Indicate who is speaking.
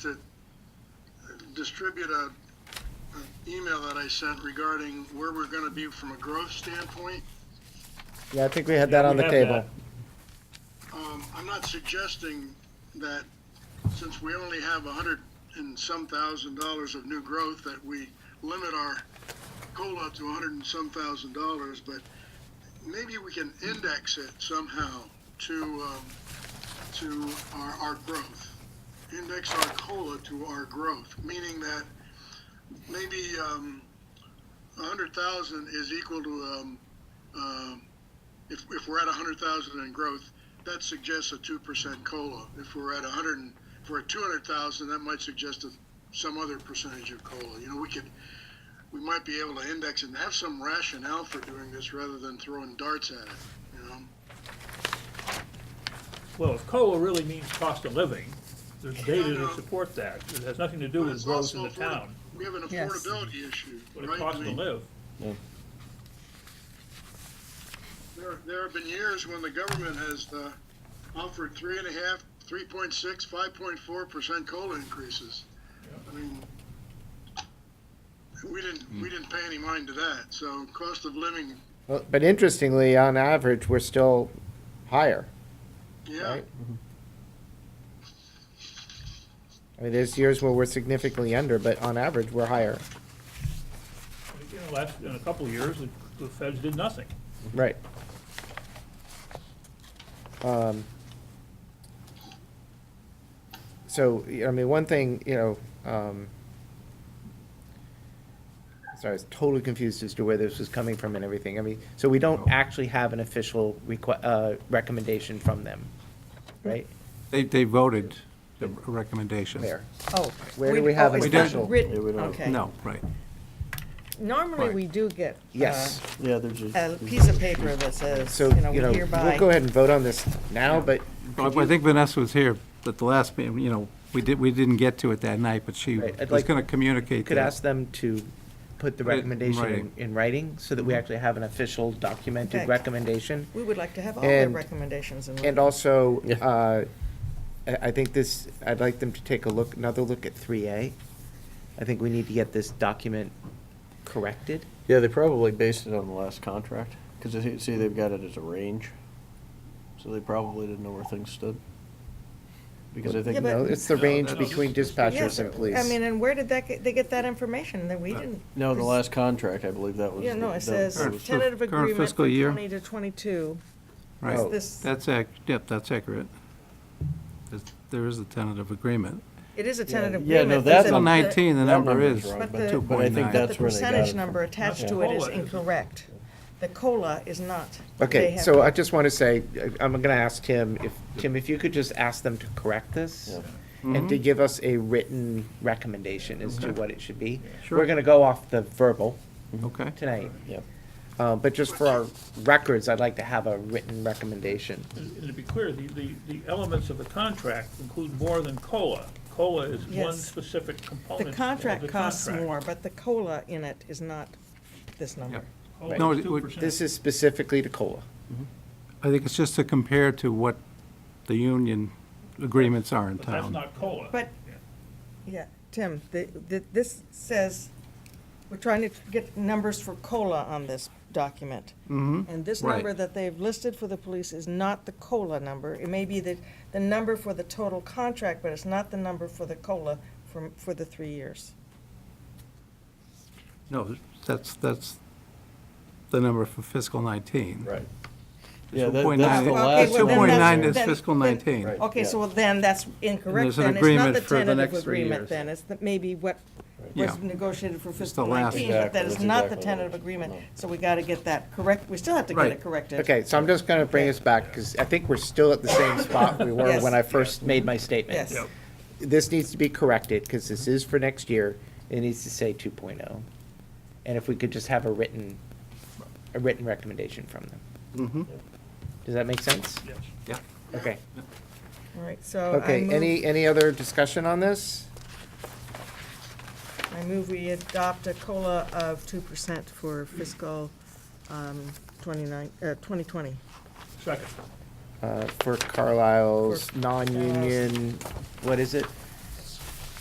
Speaker 1: to distribute a, an email that I sent regarding where we're gonna be from a growth standpoint.
Speaker 2: Yeah, I think we had that on the
Speaker 3: we have
Speaker 2: table.
Speaker 1: Um, I'm not suggesting that, since we only have a hundred and some thousand dollars of new growth, that we limit our COLA to a hundred and some thousand dollars, but maybe we can index it somehow to, um, to our, our growth. Index our COLA to our growth, meaning that maybe, um, a hundred thousand is equal to, um, um, if, if we're at a hundred thousand in growth, that suggests a two percent cola. If we're at a hundred, and- if we're at two hundred thousand, that might suggest a, some other percentage of cola. You know, we could, we might be able to index and have some rationale for doing this rather than throwing darts at it. You know,
Speaker 3: Well, if COLA really means cost of living, there's data
Speaker 1: no.
Speaker 3: to support that. It has nothing to do
Speaker 1: But
Speaker 3: with
Speaker 1: it's
Speaker 3: growth in
Speaker 1: also
Speaker 3: the
Speaker 1: afford-
Speaker 3: town,
Speaker 1: we have an
Speaker 4: Yes.
Speaker 1: affordability issue,
Speaker 3: but it
Speaker 1: right?
Speaker 3: costs
Speaker 1: I
Speaker 3: to
Speaker 1: mean,
Speaker 3: live.
Speaker 1: There, there have been years when the government has uh, offered three and a half, three point six, five point four percent cola increases. I mean, we didn't, we didn't pay any mind to that. So cost of living,
Speaker 2: Well, But interestingly, on average, we're still higher,
Speaker 1: yeah,
Speaker 2: right? I mean, there's years where we're significantly under, but on average, we're higher.
Speaker 3: You know, last, in a couple of years, the- the feds did nothing.
Speaker 2: Right. Um, so, y- I mean, one thing, you know, um, sorry, I was totally confused as to where this was coming from and everything. I mean, so we don't actually have an official requ- uh, recommendation from them, right?
Speaker 5: They, they voted the recommendation.
Speaker 2: Where?
Speaker 4: Oh.
Speaker 2: Where do we have
Speaker 4: oh,
Speaker 2: an
Speaker 4: it's not
Speaker 2: official?
Speaker 6: Yeah, we
Speaker 4: Written,
Speaker 6: don't.
Speaker 4: okay.
Speaker 5: No, right.
Speaker 4: Normally,
Speaker 5: Right.
Speaker 4: we do get. uh,
Speaker 2: Yes.
Speaker 6: Yeah, there's a.
Speaker 4: A piece of paper that says,
Speaker 2: So,
Speaker 4: you know, we
Speaker 2: you know,
Speaker 4: hereby.
Speaker 2: we'll go ahead and vote on this now, but
Speaker 5: Well, I think Vanessa was here at the last, meeting, you know, we did, we didn't get to it that night, but she
Speaker 2: Right, I'd
Speaker 5: was
Speaker 2: like-
Speaker 5: going to
Speaker 2: you
Speaker 5: communicate
Speaker 2: could ask
Speaker 5: that.
Speaker 2: them to put the
Speaker 5: Put it in
Speaker 2: recommendation in-
Speaker 5: writing.
Speaker 2: in writing Mm-hmm. so that we actually have an official documented
Speaker 4: Okay.
Speaker 2: recommendation.
Speaker 4: We would like to have all their
Speaker 2: and-
Speaker 4: recommendations in
Speaker 2: And
Speaker 4: writing.
Speaker 2: also, uh, I I think this, I'd like them to take a look, another look at 3A. I think we need to get this document corrected.
Speaker 6: Yeah, they probably based it on the last contract, because see, see, they've got it as a range. So they probably didn't know where things stood. Because I
Speaker 4: Yeah,
Speaker 6: think,
Speaker 2: You know,
Speaker 4: but-
Speaker 2: It's the
Speaker 3: No,
Speaker 2: range
Speaker 3: that's-
Speaker 2: between
Speaker 4: Yeah,
Speaker 2: dispatchers and
Speaker 4: but,
Speaker 2: police.
Speaker 4: I mean, and where did that, get- they get that information that we didn't?
Speaker 6: Uh, no, the
Speaker 4: pres-
Speaker 6: last contract, I believe that was.
Speaker 4: Yeah, no,
Speaker 6: the-
Speaker 4: it
Speaker 6: that
Speaker 4: says
Speaker 6: was-
Speaker 5: ten-
Speaker 4: tentative
Speaker 5: current
Speaker 4: agreement
Speaker 5: fiscal
Speaker 4: for
Speaker 5: year.
Speaker 4: twenty to twenty-two.
Speaker 2: Oh.
Speaker 5: Right,
Speaker 4: This,
Speaker 5: that's ac, yep, that's accurate. There's- There is a tentative agreement.
Speaker 4: it is a tentative
Speaker 6: Yeah, no,
Speaker 4: agreement. but
Speaker 6: that's-
Speaker 4: the-
Speaker 5: Till 19, the
Speaker 6: that
Speaker 5: number
Speaker 6: number's
Speaker 5: is
Speaker 6: wrong,
Speaker 4: but the-
Speaker 6: But I think
Speaker 5: 2.9.
Speaker 4: But the
Speaker 6: that's where they got
Speaker 4: percentage
Speaker 6: it
Speaker 4: number attached
Speaker 6: Yeah.
Speaker 4: to it is
Speaker 3: Cola is-
Speaker 4: incorrect. The COLA is not. They
Speaker 2: Okay,
Speaker 4: have
Speaker 2: so
Speaker 4: to-
Speaker 2: I just want to say, I- I'm going to ask Tim, if, Tim, if you could just ask them to correct this
Speaker 6: Yeah.
Speaker 2: and to
Speaker 4: Mm-hmm.
Speaker 2: give us a written recommendation as to what it should be.
Speaker 5: Sure.
Speaker 2: We're going to go off the verbal
Speaker 5: Okay,
Speaker 2: tonight,
Speaker 6: Yeah,
Speaker 2: uh, but just for our records, I'd like to have a written recommendation.
Speaker 3: And and to be clear, the, the, the elements of the contract include more than COLA. COLA is one
Speaker 4: Yes.
Speaker 3: specific
Speaker 4: The
Speaker 3: component of the contract.
Speaker 4: contract costs more, but the COLA in it is not this number.
Speaker 5: Yep. No,
Speaker 3: COLA
Speaker 5: it
Speaker 3: is
Speaker 5: would-
Speaker 3: 2%.
Speaker 2: This is specifically to COLA.
Speaker 5: I think it's just to compare to what the union agreements are in
Speaker 3: But that's
Speaker 5: town.
Speaker 3: not COLA.
Speaker 4: But, yeah, Tim, the, the, this says, we're trying to get numbers for COLA on this document.
Speaker 5: Mhm.
Speaker 4: And this
Speaker 5: Right.
Speaker 4: number that they've listed for the police is not the COLA number. It may be the, the number for the total contract, but it's not the number for the COLA for, for the three years.
Speaker 5: No, that's, that's the number for fiscal 19.
Speaker 6: right. Yeah, that- that's the
Speaker 5: 2.9,
Speaker 4: last one.
Speaker 5: 2.9 is
Speaker 4: Then-
Speaker 5: fiscal
Speaker 4: then-
Speaker 5: 19.
Speaker 6: Right.
Speaker 4: Okay, so
Speaker 6: Yeah.
Speaker 4: then that's incorrect
Speaker 5: there's an
Speaker 4: then. It's not
Speaker 5: agreement
Speaker 4: the
Speaker 5: for the
Speaker 4: tentative
Speaker 5: next three
Speaker 4: agreement
Speaker 5: years.
Speaker 4: then. It's the, maybe what
Speaker 5: Yeah.
Speaker 4: was negotiated for fiscal
Speaker 5: last-
Speaker 4: nineteen, but that
Speaker 6: Exactly,
Speaker 4: is
Speaker 6: that's
Speaker 4: not the
Speaker 6: exactly what it
Speaker 4: tentative
Speaker 6: is.
Speaker 4: agreement.
Speaker 6: No.
Speaker 4: So we gotta get that correct. We still have to get it
Speaker 5: Right.
Speaker 4: corrected.
Speaker 2: Okay, so I'm just gonna bring us back, because I think we're still at the same spot we were
Speaker 4: Yes.
Speaker 2: when I first made my statement.
Speaker 4: Yes. Yep.
Speaker 2: This needs to be corrected, because this is for next year, it needs to say two oh. And if we could just have a written, a written recommendation from them.
Speaker 6: Mm-hmm.
Speaker 5: Mhm.
Speaker 2: Does that make sense?
Speaker 3: Yes.
Speaker 5: Yeah.
Speaker 2: Okay,
Speaker 4: All right, so Oh, I
Speaker 2: okay,
Speaker 4: move,
Speaker 2: any, any other discussion on this?
Speaker 4: I move we adopt a COLA of two percent for fiscal, um, twenty-nine, uh, twenty twenty.
Speaker 3: Second.
Speaker 2: Uh, for Carlisle's non-union, what is it?